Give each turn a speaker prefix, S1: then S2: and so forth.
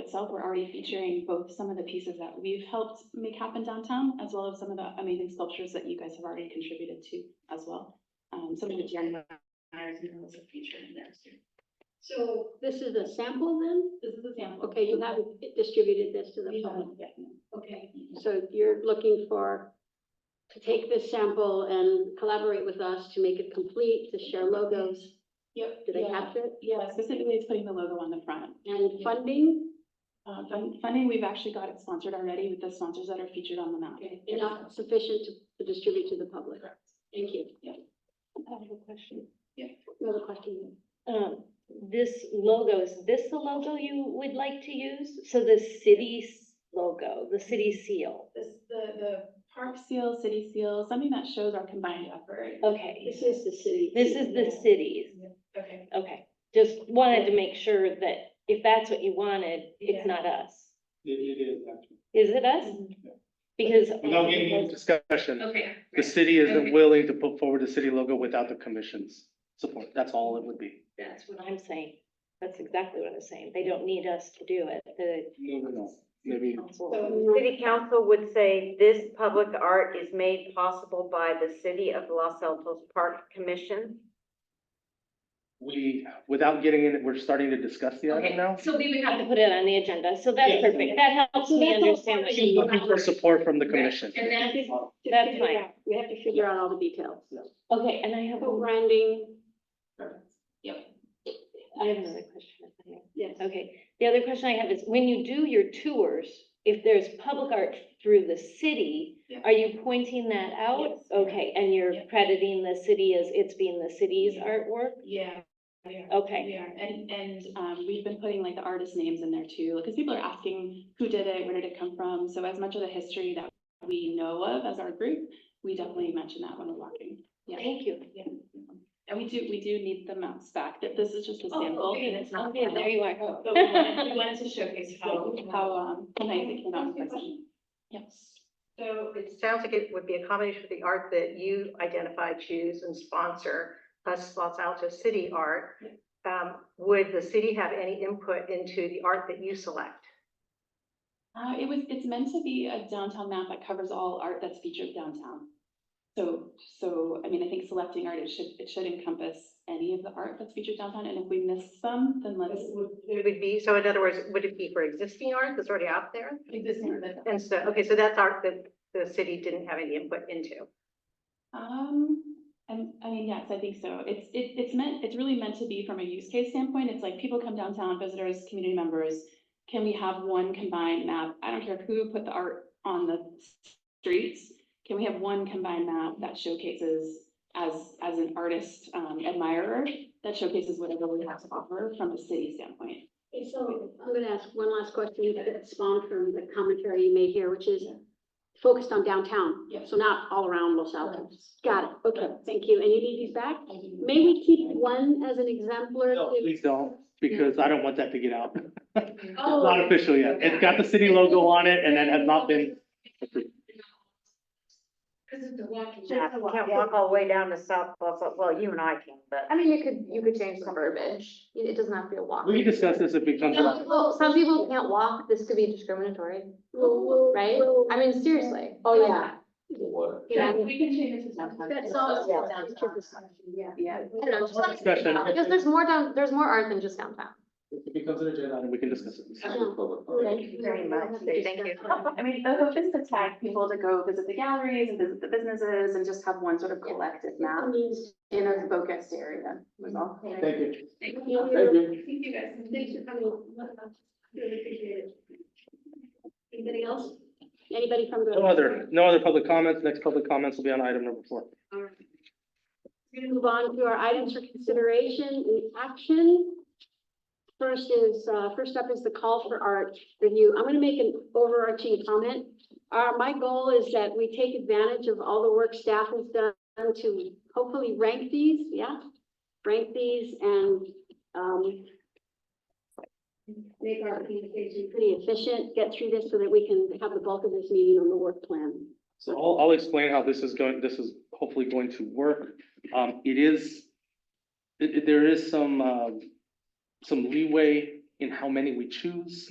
S1: itself, we're already featuring both some of the pieces that we've helped make happen downtown, as well as some of the amazing sculptures that you guys have already contributed to as well. Um, some of the Jerry Myers murals are featured in there too.
S2: So this is a sample then?
S1: This is a sample.
S2: Okay, you haven't distributed this to the
S1: We
S2: public.
S1: haven't yet, no.
S2: Okay, so you're looking for, to take this sample and collaborate with us to make it complete, to share logos.
S1: Yep.
S2: Did I
S1: yeah.
S2: capture it?
S1: Yeah, specifically it's putting the logo on the front.
S2: And funding,
S1: Uh, fun- funding, we've actually got it sponsored already with the sponsors that are featured on the map.
S2: enough sufficient to- to distribute to the public.
S1: Correct.
S2: Thank you.
S3: I have a question.
S2: Another question.
S3: Um, this logo, is this the logo you would like to use? So the city's logo, the city seal.
S1: This, the, the park seal, city seal, something that shows our combined effort.
S3: Okay,
S2: This is the city.
S3: this is the city's.
S1: Okay.
S3: Okay, just wanted to make sure that if that's what you wanted, it's not us.
S4: It, it is actually.
S3: Is it us? Because.
S4: Without getting into discussion,
S3: Okay.
S4: the city isn't willing to put forward the city logo without the commission's support. That's all it would be.
S3: That's what I'm saying. That's exactly what I'm saying. They don't need us to do it, the
S4: No, no, no. Maybe
S3: council.
S2: Um,
S5: So city council would say this public art is made possible by the city of Los Altos Park Commission.
S4: we, without getting in, we're starting to discuss the item now.
S3: So we would have to put it on the agenda, so that's
S4: Yes.
S3: perfect, that helps
S2: So
S3: me
S2: that's all
S3: understand what you
S4: Looking for support from the commission.
S3: And that is,
S2: To
S3: that's
S2: figure it
S3: fine.
S2: out. We have to figure out all the details.
S3: okay, and I have, a-
S2: Co-branding,
S3: I have another question.
S2: yes.
S3: Okay, the other question I have is, when you do your tours, if there's public art through the city,
S1: Yeah.
S3: are you pointing that out?
S1: Yes.
S3: Okay, and you're
S1: Yeah.
S3: crediting the city as it's being the city's artwork?
S1: Yeah, yeah.
S3: Okay,
S1: We are, and, and, um, we've been putting like the artist names in there too, because people are asking who did it, where did it come from? So as much of the history that we know of as our group, we definitely mention that when we're walking. Yeah.
S3: thank you.
S1: Yeah. And we do, we do need the maps back, that this is just a
S3: Oh,
S1: sample.
S3: okay,
S1: it's
S3: Okay, there you are.
S1: But we wanted, we wanted to showcase how, how, um, nice it came out. in person. Yes.
S6: So it sounds like it would be a combination of the art that you identify, choose and sponsor, plus Los Altos city art. Um, would the city have any input into the art that you select?
S1: Uh, it was, it's meant to be a downtown map that covers all art that's featured downtown. So, so, I mean, I think selecting art, it should, it should encompass any of the art that's featured downtown, and if we miss some, then let's.
S6: It would be, so in other words, would it be for existing art that's already out there?
S1: Existing.
S6: And so, okay, so that's art that the city didn't have any input into.
S1: Um, I'm- I mean, yes, I think so. It's, it, it's meant, it's really meant to be from a use case standpoint. It's like people come downtown, visitors, community members. Can we have one combined map? I don't care who put the art on the streets. Can we have one combined map that showcases as, as an artist um, admirer, that showcases whatever we have to offer from a city standpoint?
S2: Okay, So I'm gonna ask one last question that spawned from the commentary you made here, which is focused on downtown.
S1: Yeah.
S2: So not all around Los Altos. Got it. Okay, thank you. And you need these back?
S1: I think-
S2: May we keep one as an exemplar?
S4: No,
S2: to-
S4: please don't, because I don't want that to get out.
S2: Oh,
S4: Not official yet. It's got the city logo on it and it has not been approved.
S5: Yeah, you can't walk all the way down to South Los, Al- well, you and I can, but.
S7: I mean, you could, you could change the verbiage, it it doesn't have to be a walk.
S4: We can discuss this if it comes up.
S7: Well, Oh, some people can't walk, this could be discriminatory,
S2: we'll- we'll-
S7: right?
S2: we'll-
S7: I mean, seriously.
S2: Oh, yeah.
S7: Yeah.
S1: We can change this to downtown.
S2: That's all.
S7: Yeah.
S2: Yeah.
S1: Yeah.
S7: I don't know, just like-
S4: Discussion.
S7: Because there's more down, there's more art than just downtown.
S4: If it becomes an agenda item, we can discuss it.
S5: Thank you very much. Thank you.
S1: I mean, the hope is to tag people to go visit the galleries and visit the businesses and just have one sort of collective map in a focused area, was all.
S4: Thank you.
S2: Thank
S4: Thank
S2: you.
S4: you.
S2: Thank you guys. Thanks for coming. Really appreciate it. Anybody else? Anybody from the?
S4: No other, no other public comments. Next public comments will be on item number four.
S2: All right. We're gonna move on to our items for consideration and action. First is, uh, first up is the call for art review. I'm gonna make an overarching comment. Uh, my goal is that we take advantage of all the work staff has done to hopefully rank these, yeah? Rank these and, um, make our communication pretty efficient, get through this so that we can have the bulk of this meeting on the work plan.
S4: So I'll, I'll explain how this is going, this is hopefully going to work. Um, it is, uh, it- it- there is some, um, some leeway in how many we choose.